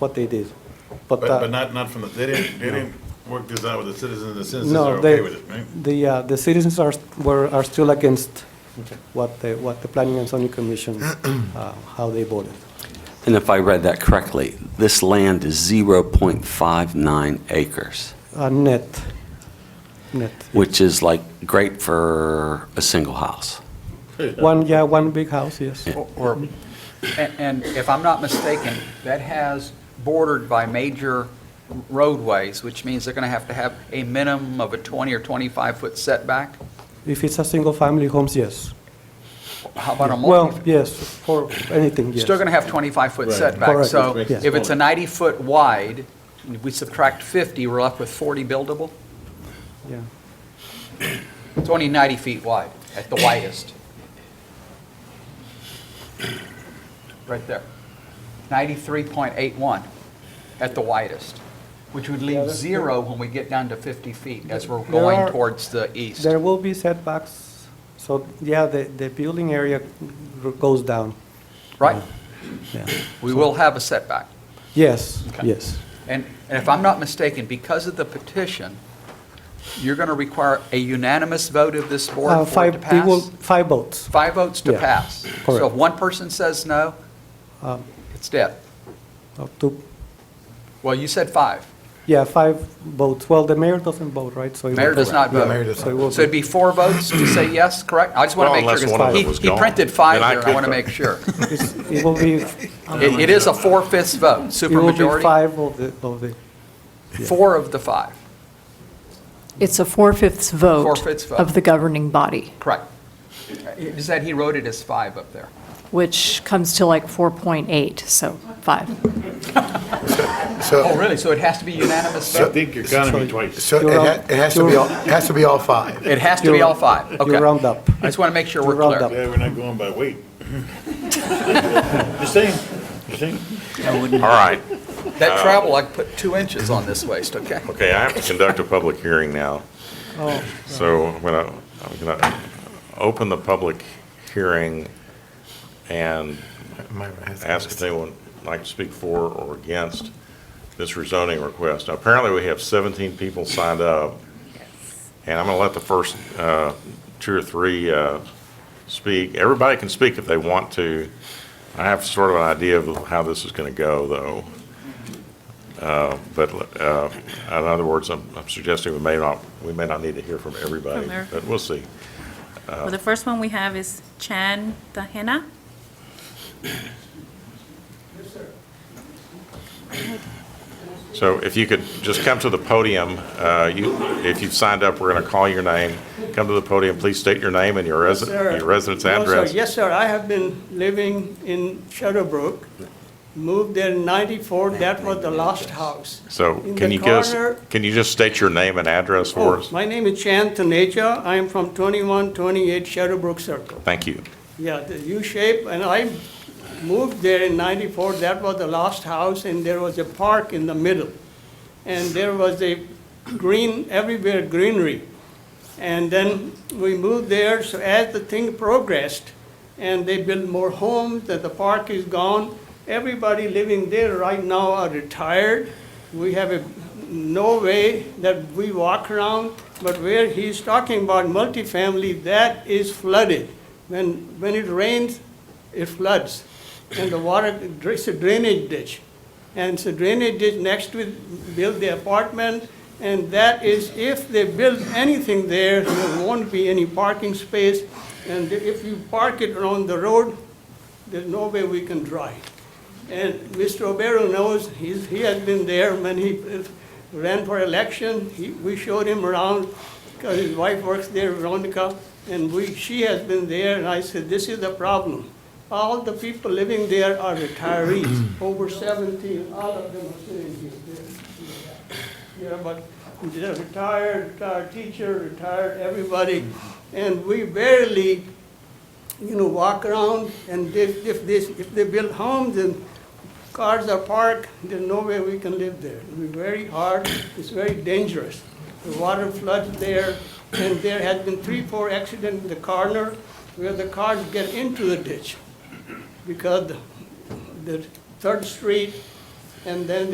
what they did. But, uh, but not, not from the, they didn't, they didn't work this out with the citizens, the citizens No, are okay they, with it, right? the, uh, the citizens are, were, are still against what the, what the Planning and Zoning Commission, uh, how they voted. And if I read that correctly, this land is 0.59 acres, Uh, Net, net. which is like great for a single house. One, yeah, one big house, yes. Or, and and if I'm not mistaken, that has bordered by major roadways, which means they're going to have to have a minimum of a 20 or 25-foot setback? If it's a single-family homes, yes. How about a Well, multi? yes, for anything, yes. Still going to have 25-foot Right. setback. Correct. So Which makes it if it's a smaller. 90-foot wide, and if we subtract 50, we're left with 40 buildable? Yeah. It's only 90 feet wide at the widest. Right there. 93.81 at the widest, which would Yeah, leave that's zero when we get down to 50 feet as we're There going are- towards the east. There will be setbacks, so, yeah, the, the building area r- goes down, Right? Oh. yeah. We will have a setback. Yes, Okay. yes. And and if I'm not mistaken, because of the petition, you're going to require a unanimous vote of this Uh, board for it five- to it will- pass? Five votes. Five votes to Yeah, pass. So if correct. one person says no, Um, it's dead. Up to, Well, you said five. yeah, five votes. Well, the mayor doesn't vote, right? So it Mayor will- does not vote. Yeah, So it will So it'd be- be four votes to say yes, correct? I just want to Well, make unless sure. 'cause one of he- them was He gone, printed five then I here, I could want to vote. make sure. it's- it will be, It it is a four-fifths vote, it will be supermajority, five of the, of the, four of the five, It's a four-fifths vote. Four-fifths vote. Of the governing body, correct. Is that he wrote it as five up there? which comes to like 4.8, so five. Oh, So, really? So it has to be unanimous? I vote? think you're counting me twice. so it ha- it has to be, all it has to be all five. It has to be all five, you okay. round up. I just want to make sure You we're round clear. up. Yeah, we're not going by weight. Just saying, just saying. That All right, travel, I put two inches on this waist, okay? okay, I have to conduct a public hearing now. Oh, So I'm gonna, I'm gonna open the public hearing and ask if anyone would like to speak for or against this rezoning request. Now, Apparently, we have 17 people signed up, and I'm gonna let the first uh, two or three uh, speak. Everybody can speak if they want to. I have sort of an idea of how this is gonna go, though. Uh, But uh, in other words, I'm I'm suggesting we may not, we may not need to hear from everybody, From every- but we'll see. Well, the first one we have is Chan Tahena. So if you could just come to the podium, uh, you, if you've signed up, we're going to call your name. Come to the podium, please state your name and your resi- Sir. your residence No, sir. address. Yes, sir, I have been living in Shadowbrook, moved there in 94, that was the last house. So In can the you just, corner- can you just state your name and address for Oh, us? my name is Chan Taneja, I am from 2128 Shadowbrook Circle. Thank you. Yeah, the U-shape, and I moved there in 94, that was the last house, and there was a park in the middle. And there was a green, everywhere greenery. And then we moved there, so as the thing progressed, and they built more homes, that the park is gone, everybody living there right now are retired. We have a, no way that we walk around, but where he's talking about multifamily, that is flooded. When, when it rains, it floods, and the water, it's a drainage ditch. And so drainage ditch next to it, build the apartment, and that is, if they build anything there, there won't be any parking space. And if you park it on the road, there's no way we can drive. And Mr. Obero knows, he's, he has been there when he uh, ran for election. He, we showed him around, because his wife works there, Veronica, and we, she has been there, and I said, this is the problem. All the people living there are retirees, over seventy, all of them are sitting here. They're- Yeah, but they're retired, retired teacher, retired everybody, and we barely you know, walk around, and if, if this, if they build homes and cars are parked, there's no way we can live there. It'll be very hard, it's very dangerous. The water floods there, and there has been three, four accidents in the corner where the cars get into the ditch because the Third Street and then